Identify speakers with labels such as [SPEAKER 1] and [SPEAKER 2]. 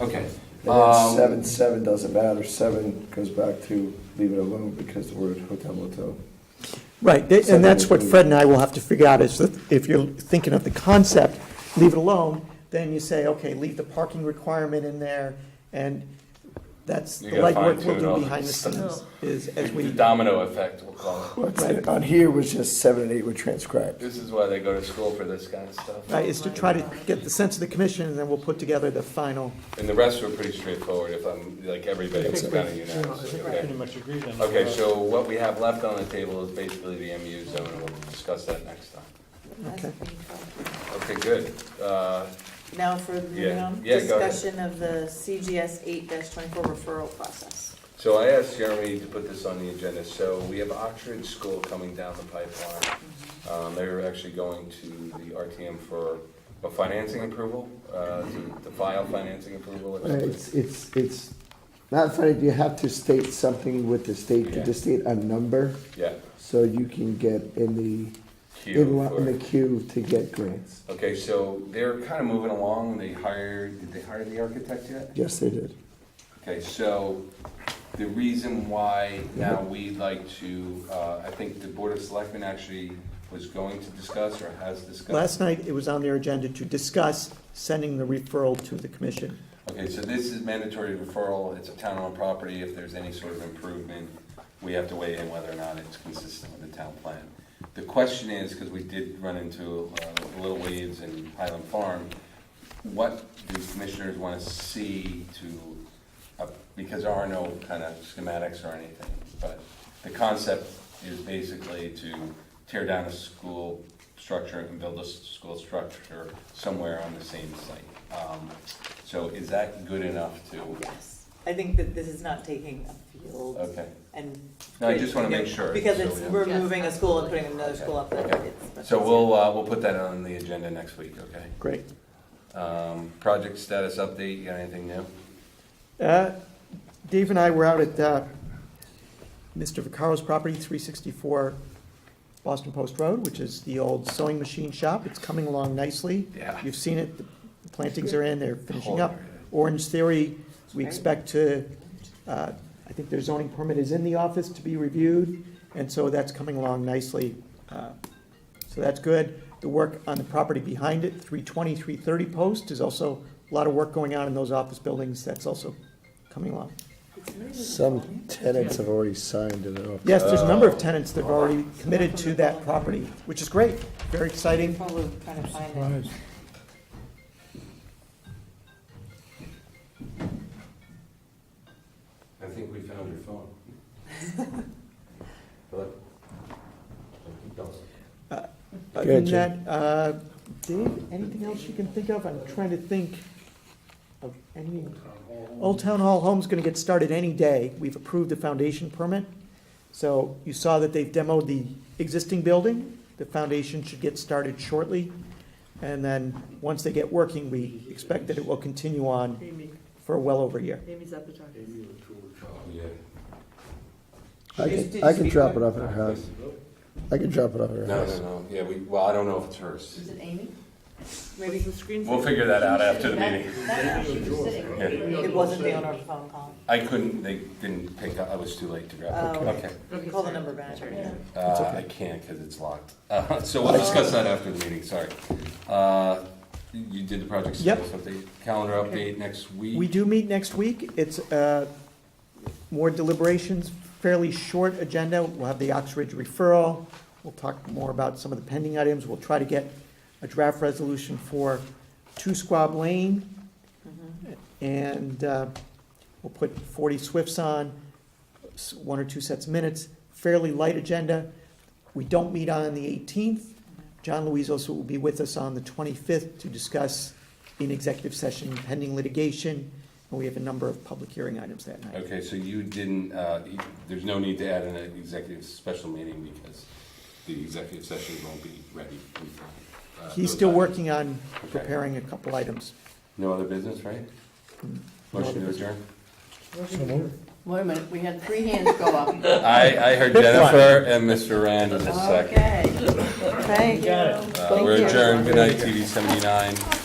[SPEAKER 1] Okay.
[SPEAKER 2] And then
[SPEAKER 1] Um,
[SPEAKER 2] seven, seven doesn't matter, seven goes back to leave it alone because the word hotel motel.
[SPEAKER 3] Right, th-
[SPEAKER 2] So
[SPEAKER 3] and that's what
[SPEAKER 2] then-
[SPEAKER 3] Fred and I will have to figure out, is that if you're thinking of the concept, leave it alone, then you say, okay, leave the parking requirement in there, and that's the
[SPEAKER 1] You gotta
[SPEAKER 3] legwork we'll
[SPEAKER 1] fine-tune all
[SPEAKER 3] do
[SPEAKER 1] the
[SPEAKER 3] behind the scenes, is as we.
[SPEAKER 1] The domino effect, we'll call it.
[SPEAKER 2] What's it- on here was just seven and eight were transcribed.
[SPEAKER 1] This is why they go to school for this kind of stuff.
[SPEAKER 3] Right, is to try to get the sense of the commission, and then we'll put together the final.
[SPEAKER 1] And the rest were pretty straightforward, if I'm, like, everybody was kind of unanimous. Okay.
[SPEAKER 4] Pretty much agreed on that.
[SPEAKER 1] Okay, so what we have left on the table is basically the MU zone, and we'll discuss that next time.
[SPEAKER 3] Okay.
[SPEAKER 1] Okay, good. Uh,
[SPEAKER 5] Now for, moving
[SPEAKER 1] Yeah.
[SPEAKER 5] on,
[SPEAKER 1] Yeah, go ahead.
[SPEAKER 5] discussion of the CGS eight twenty-four referral process.
[SPEAKER 1] So I asked Jeremy to put this on the agenda. So we have Oxford School coming down the pipeline. Um, They're actually going to the RTM for a financing approval, uh, to to file financing approval. or
[SPEAKER 6] Uh,
[SPEAKER 1] something.
[SPEAKER 6] It's, it's, it's not funny, you have to state something with the state,
[SPEAKER 1] Yeah.
[SPEAKER 6] to just state a number,
[SPEAKER 1] Yeah,
[SPEAKER 6] so you can get in the,
[SPEAKER 1] queue
[SPEAKER 6] in li- in the
[SPEAKER 1] for,
[SPEAKER 6] queue to get grants.
[SPEAKER 1] okay, so they're kind of moving along. They hired, did they hire the architect yet?
[SPEAKER 6] Yes, they did.
[SPEAKER 1] Okay, so the reason why now we'd like to, uh, I think the Board of Selectmen actually was going to discuss or has discussed.
[SPEAKER 3] Last night, it was on their agenda to discuss sending the referral to the commission.
[SPEAKER 1] Okay, so this is mandatory referral, it's a town-owned property, if there's any sort of improvement, we have to weigh in whether or not it's consistent with the town plan. The question is, because we did run into uh, Little Weeds and Highland Farm, what do commissioners want to see to, uh, because there are no kind of schematics or anything, but the concept is basically to tear down a school structure and build a s- school structure somewhere on the same site. Um, So is that good enough to,
[SPEAKER 5] Yes, I think that this is not taking a field
[SPEAKER 1] okay.
[SPEAKER 5] and.
[SPEAKER 1] No, I just want to make sure.
[SPEAKER 5] Because
[SPEAKER 1] so
[SPEAKER 5] it's,
[SPEAKER 1] we don't-
[SPEAKER 5] we're moving a school and putting another school up there.
[SPEAKER 1] Okay.
[SPEAKER 5] It's much
[SPEAKER 1] So
[SPEAKER 5] easier.
[SPEAKER 1] we'll, uh, we'll put that on the agenda next week, okay?
[SPEAKER 3] Great.
[SPEAKER 1] Um, Project status update, you got anything new?
[SPEAKER 3] Uh, Dave and I were out at uh, Mr. Vicaro's property, 364 Boston Post Road, which is the old sewing machine shop. It's coming along nicely.
[SPEAKER 1] Yeah.
[SPEAKER 3] You've seen it, the plantings are in, they're finishing up.
[SPEAKER 1] Hold it.
[SPEAKER 3] Orange Theory, we expect to, uh, I think their zoning permit is in the office to be reviewed, and so that's coming along nicely. Uh, So that's good. The work on the property behind it, 320, 330 Post, is also a lot of work going on in those office buildings. That's also coming along.
[SPEAKER 2] Some tenants have already signed it off.
[SPEAKER 3] Yes, there's a number of tenants that have already committed to that property, which is great, very exciting.
[SPEAKER 5] Probably trying to find it.
[SPEAKER 1] I think we found your phone. Hello?
[SPEAKER 3] Other than that, uh, Dave, anything else you can think of? I'm trying to think of any. Old Town Hall Home's gonna get started any day. We've approved the foundation permit. So you saw that they've demoed the existing building. The foundation should get started shortly. And then, once they get working, we expect that it will continue on
[SPEAKER 7] Amy,
[SPEAKER 3] for well over a year.
[SPEAKER 7] Amy's at the top.
[SPEAKER 1] Yeah.
[SPEAKER 6] I
[SPEAKER 5] Did- did
[SPEAKER 6] can, I
[SPEAKER 5] you
[SPEAKER 6] can
[SPEAKER 5] speak
[SPEAKER 6] drop
[SPEAKER 5] to
[SPEAKER 6] it off at her house. I can drop it off at her
[SPEAKER 1] No,
[SPEAKER 6] house.
[SPEAKER 1] no, no, yeah, we, well, I don't know if it's hers.
[SPEAKER 8] Is it Amy?
[SPEAKER 5] Maybe
[SPEAKER 7] The screen's
[SPEAKER 1] We'll figure that out after the meeting.
[SPEAKER 8] That- She was sitting.
[SPEAKER 1] Yeah.
[SPEAKER 5] it wasn't the owner of the phone call.
[SPEAKER 1] I couldn't, they didn't pick up, I was too late to grab it.
[SPEAKER 5] Oh.
[SPEAKER 1] Okay.
[SPEAKER 7] Okay,
[SPEAKER 5] Call the
[SPEAKER 7] sorry.
[SPEAKER 5] number manager.
[SPEAKER 1] Uh, I can't because it's locked. Uh, So we'll discuss that after the meeting, sorry. Uh, You did the project
[SPEAKER 3] Yep.
[SPEAKER 1] status update, calendar update next week?
[SPEAKER 3] We do meet next week. It's uh, more deliberations, fairly short agenda. We'll have the Oxbridge referral. We'll talk more about some of the pending items. We'll try to get a draft resolution for Two Squab Lane,
[SPEAKER 5] Mm-hmm.
[SPEAKER 3] and uh, we'll put 40 Swifts on, s- one or two sets of minutes, fairly light agenda. We don't meet on the 18th. John Luizos will be with us on the 25th to discuss in executive session pending litigation, and we have a number of public hearing items that night.
[SPEAKER 1] Okay, so you didn't, uh, you- there's no need to add an executive special meeting because the executive session won't be ready. in time. Uh,
[SPEAKER 3] He's
[SPEAKER 1] those
[SPEAKER 3] still
[SPEAKER 1] items.
[SPEAKER 3] working on
[SPEAKER 1] Okay.
[SPEAKER 3] preparing a couple items.
[SPEAKER 1] No other business, right?
[SPEAKER 3] No
[SPEAKER 1] Motion
[SPEAKER 3] other
[SPEAKER 1] to adjourn?
[SPEAKER 8] Wait a minute, we had three hands go up.
[SPEAKER 1] I, I heard
[SPEAKER 3] Pick one.
[SPEAKER 1] Jennifer and Mr. Rand in a second.
[SPEAKER 8] Okay.
[SPEAKER 7] Got it.
[SPEAKER 1] Uh, We're adjourned, good night, TV seventy-nine.